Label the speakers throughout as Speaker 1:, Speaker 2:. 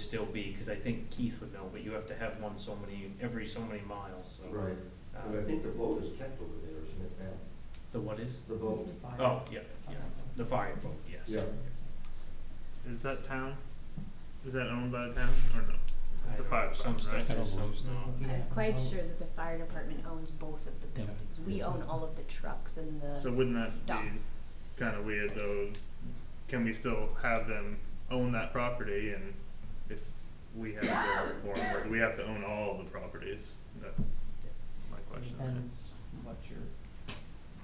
Speaker 1: still be, because I think Keith would know, but you have to have one so many, every so many miles, so.
Speaker 2: Right,
Speaker 1: uh,
Speaker 2: Um, but I think the vote is kept over there, isn't it, Matt?
Speaker 1: The what is?
Speaker 2: The vote,
Speaker 1: Oh, yeah, yeah, the fire boat, yes.
Speaker 2: yeah.
Speaker 3: Is that town? Is that owned by the town or no? It's the
Speaker 1: I-
Speaker 3: fire
Speaker 1: Some
Speaker 3: department, right?
Speaker 1: stuff is, some's not.
Speaker 4: I'm quite
Speaker 5: Well-
Speaker 4: sure that the fire department owns both of the
Speaker 5: Yeah.
Speaker 4: buildings. We own all of the trucks and the.
Speaker 3: So wouldn't that
Speaker 4: Stuff.
Speaker 3: be kind of weird though? Can we still have them own that property and if we have to go for them, or do we have to own all the properties? That's my question. I guess.
Speaker 5: Depends what your,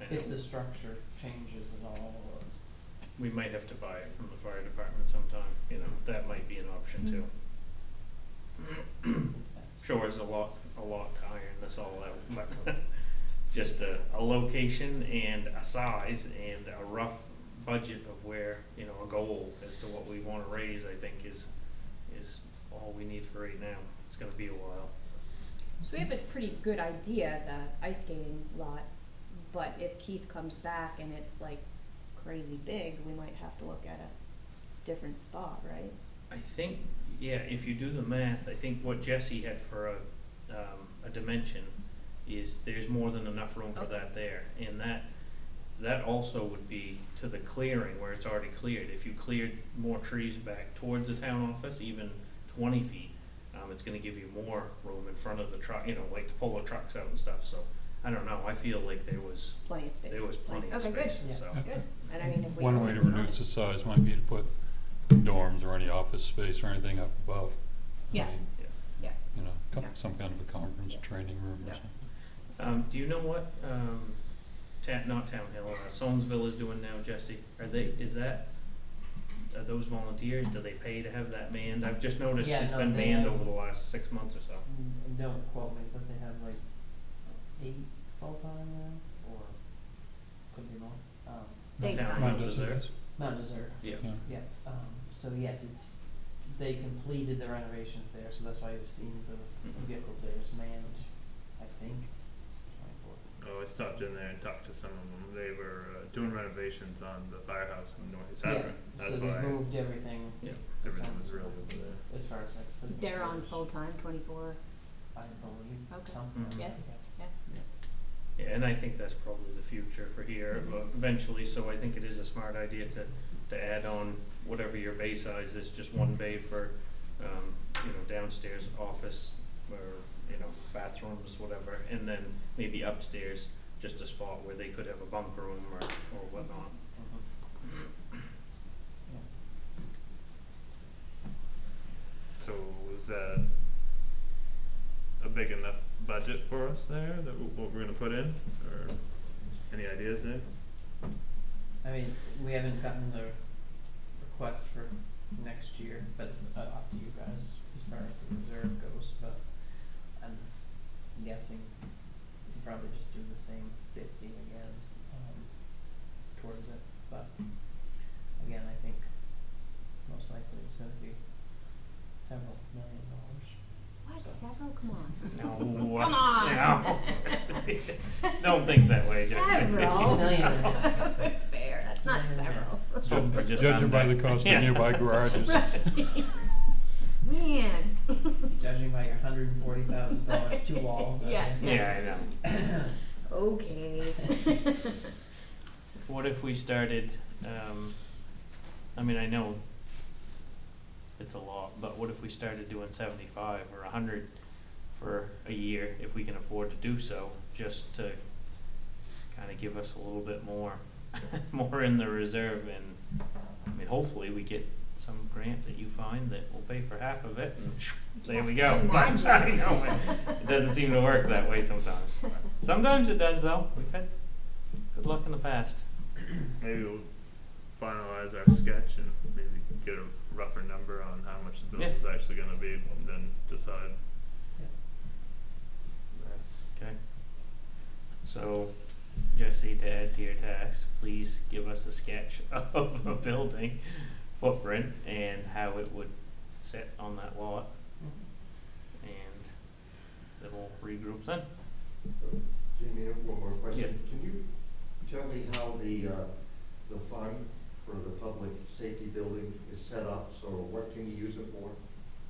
Speaker 1: I
Speaker 5: if
Speaker 1: know.
Speaker 5: the structure changes at all, or,
Speaker 1: We might have to buy it from the fire department sometime, you know, that might be an
Speaker 3: Mm-hmm.
Speaker 1: option too. Sure, there's a lot, a lot to iron this all out, but just a, a location and a size and a rough budget of where, you know, a goal as to what we wanna raise, I think is, is all we need for right now. It's gonna be a while.
Speaker 4: So we have a pretty good idea, the ice skating lot, but if Keith comes back and it's like crazy big, we might have to look at a different spot, right?
Speaker 1: I think, yeah, if you do the math, I think what Jesse had for a, um, a dimension is there's more than enough room for that there. And that, that also would be to the clearing where it's already cleared. If you cleared more trees back towards the town office, even twenty feet, um, it's gonna give you more room in front of the truck, you know, like to pull the trucks out and stuff, so. I don't know, I feel like there was,
Speaker 4: Plenty of space.
Speaker 1: there was plenty of
Speaker 4: Okay, good.
Speaker 1: space,
Speaker 5: Yeah.
Speaker 1: so.
Speaker 4: Good, and I mean, if we.
Speaker 6: One way to reduce the size might be to put dorms or any office space or anything up above. I
Speaker 4: Yeah.
Speaker 6: mean,
Speaker 1: Yeah.
Speaker 4: Yeah.
Speaker 6: You know, co-
Speaker 4: Yeah.
Speaker 6: some kind of a conference, training room
Speaker 1: Yeah.
Speaker 6: or something.
Speaker 1: Um, do you know what, um, Ta- not Town Hill, uh, Solmesville is doing now, Jesse? Are they, is that, are those volunteers, do they pay to have that manned? I've just noticed
Speaker 5: Yeah,
Speaker 1: it's
Speaker 5: no,
Speaker 1: been
Speaker 5: they
Speaker 1: manned
Speaker 5: have-
Speaker 1: over the last six months or so.
Speaker 5: Mm, don't quote me, but they have like eight full-time now, or could be more, um,
Speaker 4: They-
Speaker 1: Town
Speaker 6: Mine
Speaker 1: Hill is
Speaker 6: doesn't
Speaker 1: there.
Speaker 6: exist.
Speaker 5: Mount Desert,
Speaker 1: Yeah.
Speaker 6: Yeah.
Speaker 5: yeah, um, so yes, it's, they completed the renovations there, so that's why you've seen the
Speaker 1: Mhm.
Speaker 5: vehicles there, it's manned, I think, twenty-four.
Speaker 3: Oh, I stopped in there and talked to some of them. They were uh, doing renovations on the firehouse in North East
Speaker 5: Yeah,
Speaker 3: Akron. That's
Speaker 5: so
Speaker 3: why
Speaker 5: they moved everything
Speaker 1: Yeah.
Speaker 5: to
Speaker 3: everything was
Speaker 5: some-
Speaker 3: really over there.
Speaker 5: as far as like. city
Speaker 4: They're on
Speaker 5: controls,
Speaker 4: full-time, twenty-four,
Speaker 5: I believe,
Speaker 4: Okay.
Speaker 5: something.
Speaker 1: Mhm.
Speaker 4: Yes.
Speaker 1: Yeah, and I think that's probably the future for here
Speaker 6: Mm-hmm.
Speaker 1: uh, eventually, so I think it is a smart idea to, to add on whatever your bay size is, just one bay for, um, you know, downstairs office or, you know, bathrooms, whatever, and then maybe upstairs, just a spot where they could have a bunk room or, or whatnot.
Speaker 5: Mhm.
Speaker 3: So is that a big enough budget for us there, that w- what we're gonna put in, or any ideas there?
Speaker 5: I mean, we haven't gotten the request for next year, but it's uh, up to you guys as far as the reserve goes, but I'm guessing you could probably just do the same fifty again, um, towards it, but again, I think most likely it's gonna be several million dollars.
Speaker 4: what,
Speaker 5: So-
Speaker 4: several, come on.
Speaker 1: No.
Speaker 4: Come on.
Speaker 1: No. Don't think that way, Jason.
Speaker 4: Several.
Speaker 5: Just a million.
Speaker 4: Fair, that's not several.
Speaker 1: Some for just
Speaker 6: Judging by
Speaker 1: under.
Speaker 6: the cost
Speaker 1: Yeah.
Speaker 6: of nearby garages.
Speaker 4: Man.
Speaker 5: Judging by your hundred and forty thousand dollar two walls, I
Speaker 4: Yeah.
Speaker 5: think.
Speaker 1: Yeah, I know.
Speaker 4: Okay.
Speaker 1: What if we started, um, I mean, I know it's a lot, but what if we started doing seventy-five or a hundred for a year, if we can afford to do so, just to kinda give us a little bit more, more in the reserve and, I mean, hopefully we get some grant that you find that will pay for half of it and there we go.
Speaker 4: Yes,
Speaker 1: But I
Speaker 4: imagine.
Speaker 1: know, it- it doesn't seem to work that way sometimes. Sometimes it does though, we've had good luck in the past.
Speaker 3: Maybe we'll finalize our sketch and maybe get a rougher number on how much the
Speaker 1: Yeah.
Speaker 3: building's actually gonna be, and then decide.
Speaker 5: Yeah.
Speaker 1: Okay. So, Jesse, to add to your task, please give us a sketch of a building footprint and how it would sit on that lot,
Speaker 5: Mhm.
Speaker 1: and then we'll regroup then.
Speaker 2: Jamie, I have one more question. Can you tell me how the, uh, the fund for the public safety building is set up? So what can you use it for?